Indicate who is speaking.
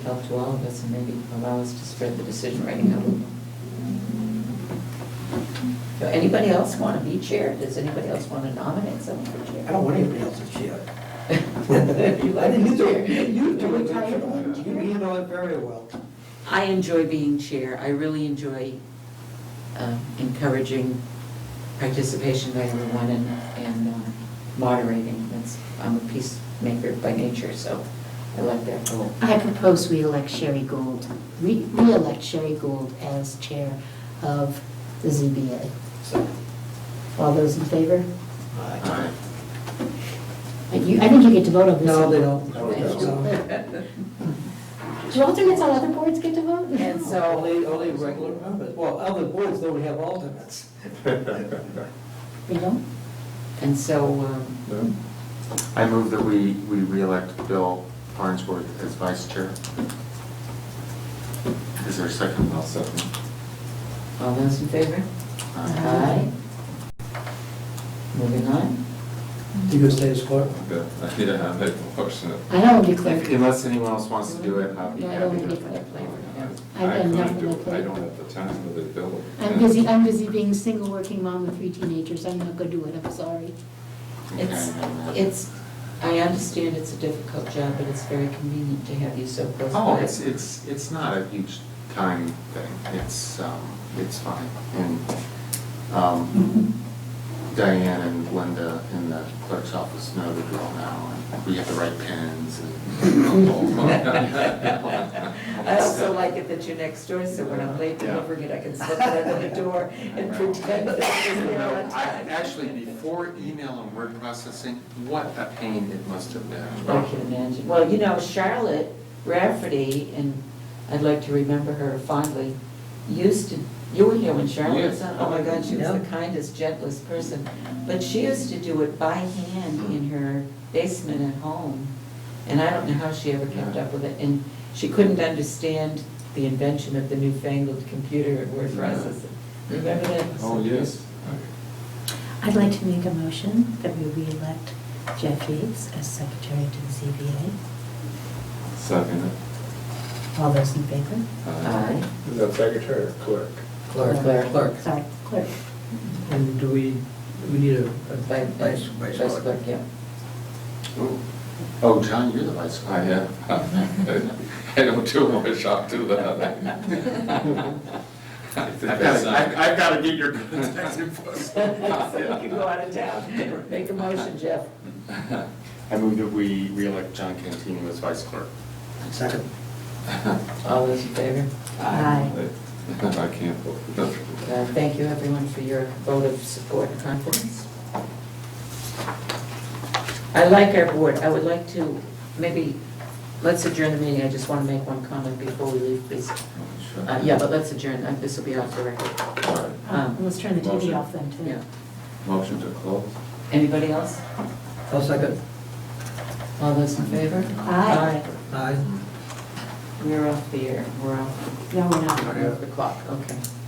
Speaker 1: help to all of us and maybe allow us to spread the decision writing out a little. Do anybody else want to be chair? Does anybody else want to nominate someone for chair?
Speaker 2: I don't want anybody else to chair.
Speaker 1: You like
Speaker 2: I didn't
Speaker 1: to
Speaker 2: either.
Speaker 1: chair.
Speaker 2: You do it, you handle it very well.
Speaker 1: I enjoy being chair. I really enjoy um, encouraging participation by everyone and, and um, moderating. That's, I'm a peacemaker by nature, so I like that role.
Speaker 3: I propose we elect Sherry Gould, re- re-elect Sherry Gould as chair of the ZBA.
Speaker 2: So,
Speaker 3: All those in favor?
Speaker 2: uh,
Speaker 3: Uh, you- I think you get to vote on this.
Speaker 2: No, they don't.
Speaker 3: No, they
Speaker 1: don't.
Speaker 3: Do alternates on other boards get to vote?
Speaker 1: And so-
Speaker 2: Only, only regular members, well, other boards don't have alternates.
Speaker 3: They don't?
Speaker 1: And so, um,
Speaker 4: I move that we, we reelect Bill Barnsworth as vice chair. Is there a second? I'll second.
Speaker 1: all those in favor?
Speaker 3: Aye.
Speaker 1: Moving on.
Speaker 2: Do you stay as clerk?
Speaker 5: Yeah, I make a motion.
Speaker 3: I don't want to be clerk.
Speaker 4: Unless anyone else wants to do it, I'll be
Speaker 3: No, I
Speaker 4: happy
Speaker 3: don't
Speaker 4: to.
Speaker 3: think I
Speaker 1: Yeah.
Speaker 3: I've
Speaker 5: I
Speaker 3: done
Speaker 5: couldn't
Speaker 3: nothing
Speaker 5: do
Speaker 3: like
Speaker 5: it. I don't
Speaker 3: that.
Speaker 5: have the time with the bill.
Speaker 3: I'm busy, I'm busy being a single working mom with three teenagers. I'm not going to do it, I'm sorry.
Speaker 4: Okay,
Speaker 1: It's,
Speaker 4: then that-
Speaker 1: it's, I understand it's a difficult job, but it's very convenient to have you so close by.
Speaker 4: Oh, it's, it's, it's not a huge time thing. It's, um, it's fine. And, um, Diane and Linda in the clerk's office know the drill now. and We have the right pens and.
Speaker 1: I also like it that you're next door, so when I'm late
Speaker 4: Yeah.
Speaker 1: delivering it, I can slip it under the door and pretend that
Speaker 4: You
Speaker 1: it's there
Speaker 4: know,
Speaker 1: on
Speaker 4: I,
Speaker 1: time.
Speaker 4: actually, before email and word processing, what a pain it must have
Speaker 1: I can
Speaker 4: been.
Speaker 1: imagine. Well, you know, Charlotte Rafferty, and I'd like to remember her fondly, used to, you were here when Charlotte was on, oh my God, she was the
Speaker 2: Yeah.
Speaker 1: kindest, gentlest person. But she used to do it by hand in her basement at home, and I don't know how she ever kept up with it. And she couldn't understand the invention of the newfangled computer and word processing. Remember that?
Speaker 5: Oh, yes.
Speaker 6: I'd like to make a motion that we re-elect Jeff Yates as secretary to the ZBA.
Speaker 5: Second it.
Speaker 6: All those in favor?
Speaker 1: Aye.
Speaker 5: Is that secretary or clerk?
Speaker 2: Clerk. Clerk.
Speaker 6: Sorry, clerk.
Speaker 2: And do we, we need a a
Speaker 1: By- by-
Speaker 2: vice, vice
Speaker 1: Vice
Speaker 2: clerk?
Speaker 1: clerk, yeah.
Speaker 4: Ooh. Oh, John, you're the vice.
Speaker 5: I
Speaker 4: clerk.
Speaker 5: have. I don't do much, I'll do that. I
Speaker 4: I've
Speaker 5: think that's
Speaker 4: gotta,
Speaker 5: not-
Speaker 4: I've- I've gotta get your contact info.
Speaker 1: So you can go out of town. Make a motion, Jeff.
Speaker 4: I move that we reelect John Cantino as vice clerk.
Speaker 2: Second.
Speaker 1: All those in favor?
Speaker 6: Aye.
Speaker 5: I can't vote.
Speaker 1: Uh, Thank you, everyone, for your vote of support and confidence. I like our board. I would like to, maybe, let's adjourn the meeting. I just want to make one comment before we leave, please. Uh, Yeah, but let's adjourn. Uh, This will be off the record.
Speaker 5: All right.
Speaker 1: Um,
Speaker 6: And Let's turn the TV
Speaker 5: Motion.
Speaker 6: off then, too.
Speaker 1: Yeah.
Speaker 5: Motion to close?
Speaker 1: Anybody else?
Speaker 2: I'll second.
Speaker 1: All those in favor?
Speaker 6: Aye.
Speaker 2: Aye.
Speaker 1: Aye. We're off the air. We're off
Speaker 6: No, we're
Speaker 1: we're
Speaker 6: not.
Speaker 1: off the clock. Okay.